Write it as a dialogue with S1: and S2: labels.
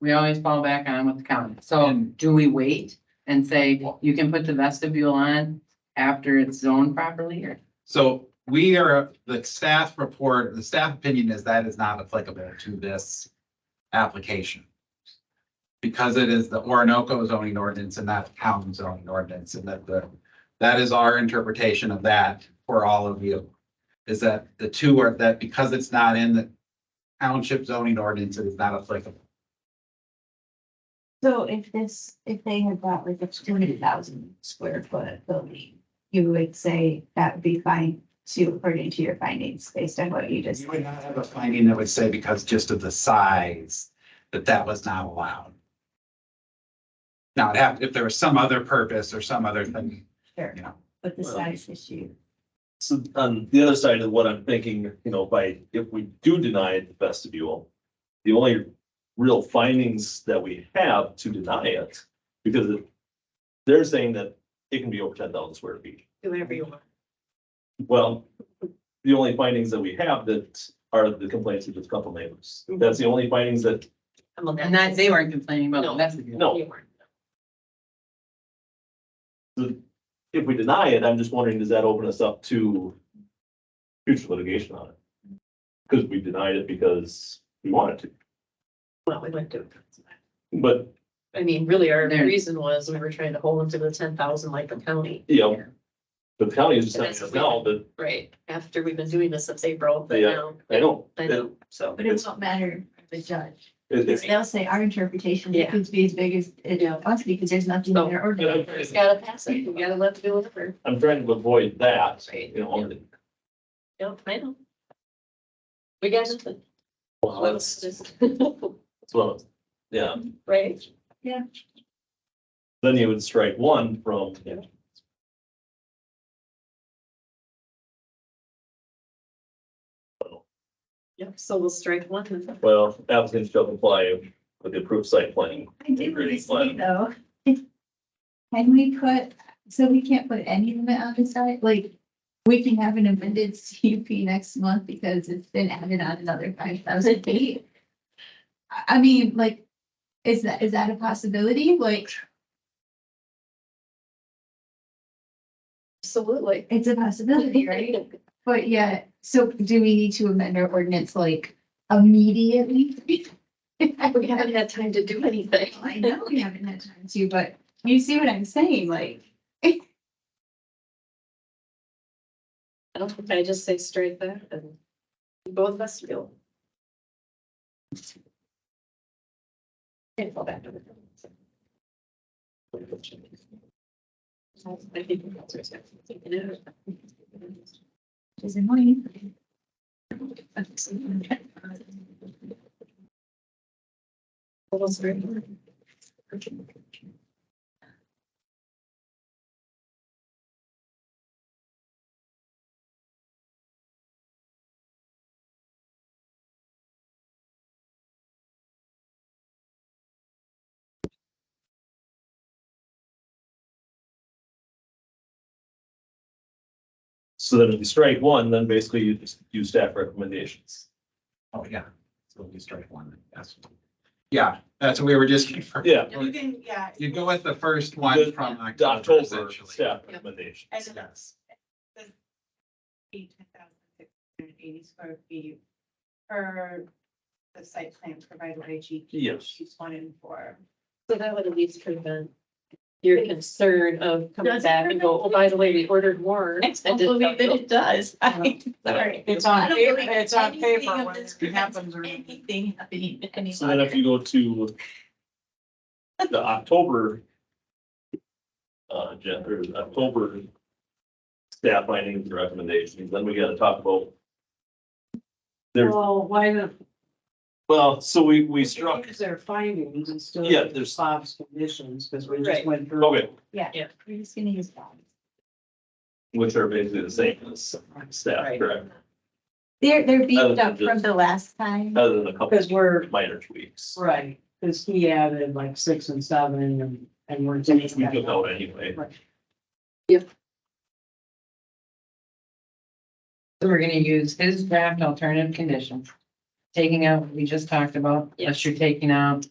S1: we always fall back on with the county. So
S2: And-
S1: do we wait and say,
S2: Well-
S1: you can put the vestibule on after it's zoned properly or?
S2: So we are, the staff report, the staff opinion is that is not applicable to this application. Because it is the Orinoco zoning ordinance and not the town zoning ordinance and that the, that is our interpretation of that for all of you. Is that the two are that because it's not in the township zoning ordinance, it is not applicable.
S3: So if this, if they had bought like a two hundred thousand square foot building, you would say that would be fine to, according to your findings, based on what you just.
S2: You would not have a finding that would say because just of the size, that that was not allowed. Now, it'd have, if there was some other purpose or some other thing,
S3: Sure,
S2: you know,
S3: but the size issue.
S4: So on the other side of what I'm thinking, you know, by, if we do deny the vestibule, the only real findings that we have to deny it, because it- they're saying that it can be over ten thousand square feet.
S3: Do whatever
S4: Mm-hmm.
S3: you want.
S4: Well, the only findings that we have that are the complaints of just a couple neighbors. That's the only findings that,
S1: And that, they weren't complaining about the
S5: No.
S1: vestibule.
S4: no, if we deny it, I'm just wondering, does that open us up to future litigation on it? Because we denied it because we wanted to,
S5: Well, we went to,
S4: but
S5: I mean, really our
S1: There.
S5: reason was we were trying to hold them to the ten thousand like the county,
S4: you know,
S1: Yeah.
S4: the county is just
S5: And
S4: telling
S5: that's
S4: us now
S5: what
S4: that,
S5: right? After we've been doing this since April, but
S4: Yeah.
S5: now,
S4: I know,
S5: I
S4: it,
S5: know, so.
S3: But it won't matter to the judge, because
S4: it- it's,
S3: they'll say our interpretation, it
S5: Yeah.
S3: could be as big as
S5: Yeah.
S3: it wants, because there's nothing in
S5: No.
S3: their
S4: I'm
S3: ordinance.
S5: It's gotta pass it, we gotta let them do whatever,
S4: I'm trying to avoid that,
S5: Right.
S4: you know.
S5: yeah, I know. We got nothing.
S4: Well, that's, that's what, I was- yeah,
S5: Right?
S4: then you would strike one from,
S5: Yeah. Yep, so we'll strike one and
S4: well, applicants shall comply with the approved site plan.
S3: I did want to say
S4: Agreed.
S3: though, can we put, so we can't put any limit on the side, like, we can have an amended CUP next month because it's been added on another five thousand feet. I, I mean, like, is that, is that a possibility? Like,
S5: absolutely.
S3: it's a possibility, right? But yeah, so do we need to amend our ordinance like immediately?
S5: We haven't had time to do anything.
S3: I know we haven't had time to, but you see what I'm saying, like.
S5: I don't think I just say straight there and both of us feel. Can't fall back to the. I think that's what I'm thinking of.
S3: Is annoying.
S5: Little straight.
S4: So then if you strike one, then basically you just use staff recommendations.
S2: oh, yeah. So we strike one, yes. Yeah, that's what we were just. confirming.
S4: Yeah.
S6: You can, yeah,
S2: You go with the first one from
S4: The
S2: October
S4: October
S2: essentially.
S4: staff recommendations.
S6: and it
S2: Yes.
S6: be ten thousand six hundred eighty square feet per the site plan provided by G.
S4: Yes.
S6: She's one in four.
S5: So that would at least prevent your concern of coming back and go, oh, by the way, we ordered more.
S3: I don't believe that it does. I- Sorry.
S6: Uh-huh. It's
S3: I
S6: on
S3: don't
S6: paper,
S3: believe
S6: it's on
S3: anything
S6: paper
S3: of
S6: when
S3: this
S6: it happens.
S3: prevents
S6: or-
S3: Anything happening any
S4: So then if
S3: longer.
S4: you go to the October uh, gen- or October staff findings and recommendations, then we gotta talk about, There-
S7: Well, why not?
S4: well, so we, we struck,
S7: Use their findings instead
S4: Yeah,
S7: of
S4: there's-
S7: Bob's conditions, because we
S5: Right.
S7: just went through.
S4: Okay.
S3: We're just gonna use that.
S4: which are basically the same as staff,
S7: Right.
S4: correct?
S3: They're, they're beefed
S4: than
S3: up from
S4: just-
S3: the last time.
S4: Other than a couple
S7: Because we're,
S4: minor tweaks.
S7: right, because he added like six and seven and, and we're.
S4: We took out anyway.
S1: So we're gonna use his draft alternative conditions, taking out what we just talked about, unless you're taking out